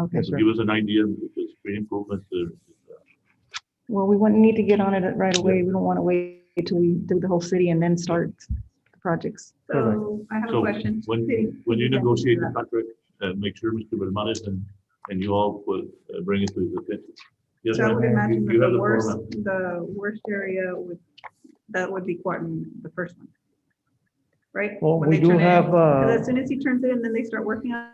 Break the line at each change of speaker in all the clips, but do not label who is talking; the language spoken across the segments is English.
Okay,
Yes,
sure.
give us an idea, because green improvements, uh,
Well, we wouldn't need to get on it right away. We don't want to wait till we do the whole city and then start the projects.
So I have a
So
question. City-
when, when you
city council
negotiate the
director.
contract, uh, make sure Mr. Belmonte and, and you all will uh, bring it to his attention. Yes,
So I would
ma'am, you-
imagine
you
that
have
the
floor,
worst,
ma'am.
the worst area would, that would be Quarton, the first one. Right?
Well,
When
we
they
do
turn it in.
have, uh,
'Cause As soon as he turns it in, then they start working on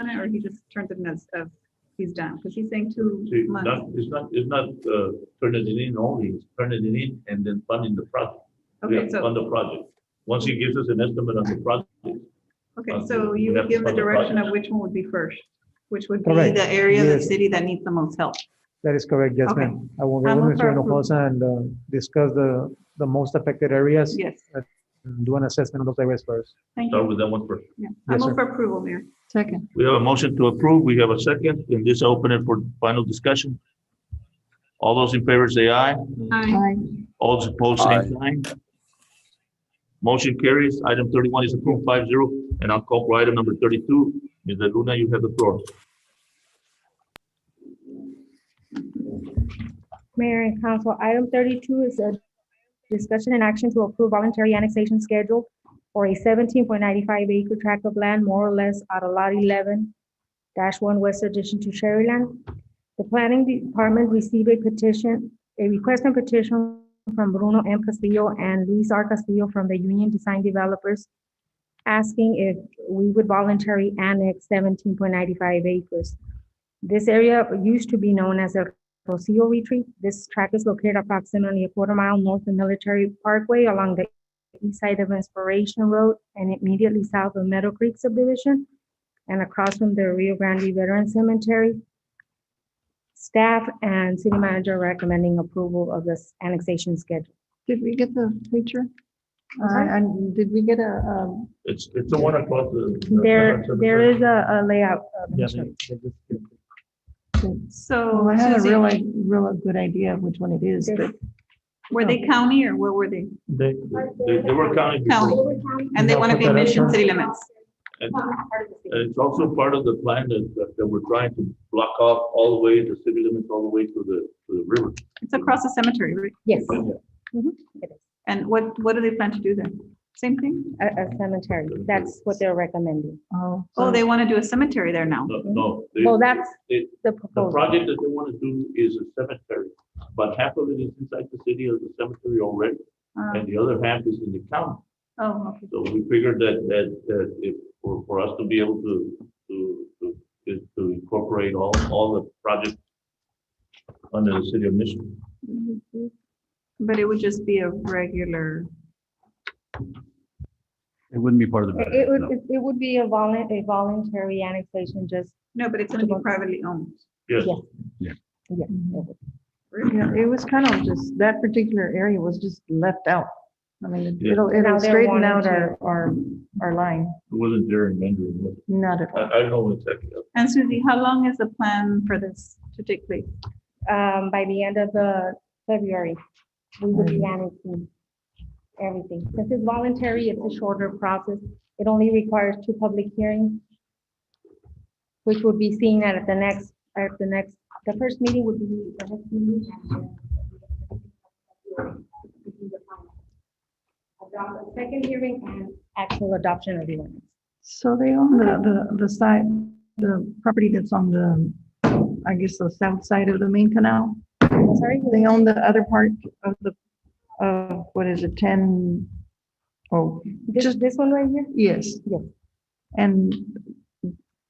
on it, or he just turns it in as, as he's done, because he's saying
See,
two
not,
months.
it's not, it's not, uh, turning it in only, it's turning it in and then funding the project. We
Okay,
have to
so,
fund the project. Once he gives us an estimate on the project,
okay,
uh,
so
we
you
have
would
to
give the
fund the
direction of
project.
which one would be first, which would be
Correct.
the area of the
Yes.
city that needs the most help.
That is correct, yes,
Okay.
ma'am. I will
I
get with
move for
Mr.
approval.
Hinojosa and uh, discuss the, the most affected areas,
Yes,
and do an assessment of those areas first.
thank
start
you.
with that one first.
Yeah. I'm
Yes,
up
sir.
for approval, Mayor.
Second.
We have a motion to approve. We have a second, and this open it for final discussion. All those in favor say aye.
Aye.
Aye.
All those opposed, same sign. Motion carries. Item thirty-one is approved 5-0. and I'll call for item number thirty-two. Ms. Luna, you have the floor.
Mayor and Council, item thirty-two is a discussion and action to approve voluntary annexation schedule for a seventeen point ninety-five acre tract of land, more or less, out of lot eleven one west addition to Sherryland. The planning department received a petition, a request and petition from Bruno M. Castillo and Luis R. Castillo from the Union Design Developers asking if we would voluntarily annex seventeen point ninety-five acres. This area used to be known as El Rocio Retreat. This track is located approximately a quarter mile north of Military Parkway along the east side of Inspiration Road and immediately south of Meadow Creek subdivision and across from the Rio Grande Veteran Cemetery. Staff and city manager recommending approval of this annexation schedule.
Did we get the picture?
I'm sorry?
Uh, and did we get a, um,
It's, it's the one uh, across the.
There, there is a a layout. uh,
Yes,
Commissioner.
ma'am.
So.
Well, Oh, I had a
Susie,
real, i- real good idea of which one it is, but
Were they county or where were they?
They,
They, they were counting. before.
And they want to be mission city limits.
And and it's also part of the plan that, that- that we're trying to block off all the way, the city limits, all the way to the, to the river.
It's across the cemetery, right?
Yes, it is.
And what, what do they plan to do there? Same thing?
a a cemetery. That's what they're recommending.
oh.
Oh,
so-
they want to do a cemetery there now.
No, no. they-
Well, that's
they-
the
The
proposal.
project that they want to do is a cemetery, but half of it is inside the city of the cemetery already,
Uh,
and the other half is in the county.
Oh, okay.
So we figured that, that, that if, for, for us to be able to, to, to, is to incorporate all, all the projects under the city of Mission.
But it would just be a regular,
It wouldn't be part of the.
It it would, it it would be a volun, a voluntary annexation, just,
no, but it's going to be privately owned.
Yes,
Yeah. yeah.
Yeah, it was kind of just, that particular area was just left out. I mean,
Yeah.
it'll,
Now
it'll
they're
straighten
wanting
out
to-
our, our, our line,
it wasn't there in Mandarin. was it?
not at all.
I, I don't know exactly.
And Susie, how long is the plan for this to take place?
Um, by the end of the February, we would be annexing everything. Since it's voluntary, it's a shorter process. It only requires two public hearings, which would be seen at the next, at the next, the first meeting would be. the next meeting and then Adopt the Second hearing and actual adoption of the ordinance.
So they own the, the, the side, the property that's on the, I guess, the south side of the main canal.
I'm Sorry?
They own the other part of the, uh, what is it, ten? Oh,
This, this one right here?
yes.
Yes.
And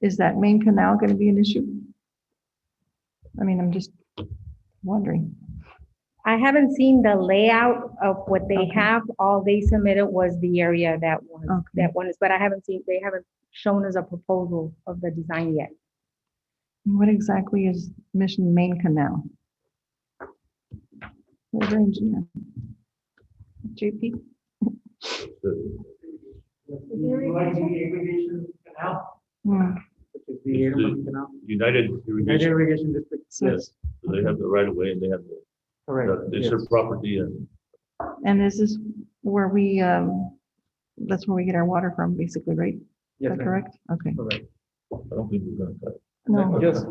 is that main canal gonna be an issue? I mean, I'm just wondering.
I haven't seen the layout of what they
Okay. Oh.
have. All they submitted was the area that was,
Okay.
that one is, but I haven't seen, they haven't shown us a proposal of the design yet.
What exactly is Mission Main Canal? Where's our engineer? JP? Hmm,
The irrigation United Irrigation,
Irrigation District.
so-
yes, So they have the right of way and they have, the-
Correct.
it's their property and
And this is where we, um, that's where we get our water from, basically, right? Is that correct? Okay.
I don't think we're gonna cut it.
No.
Yes,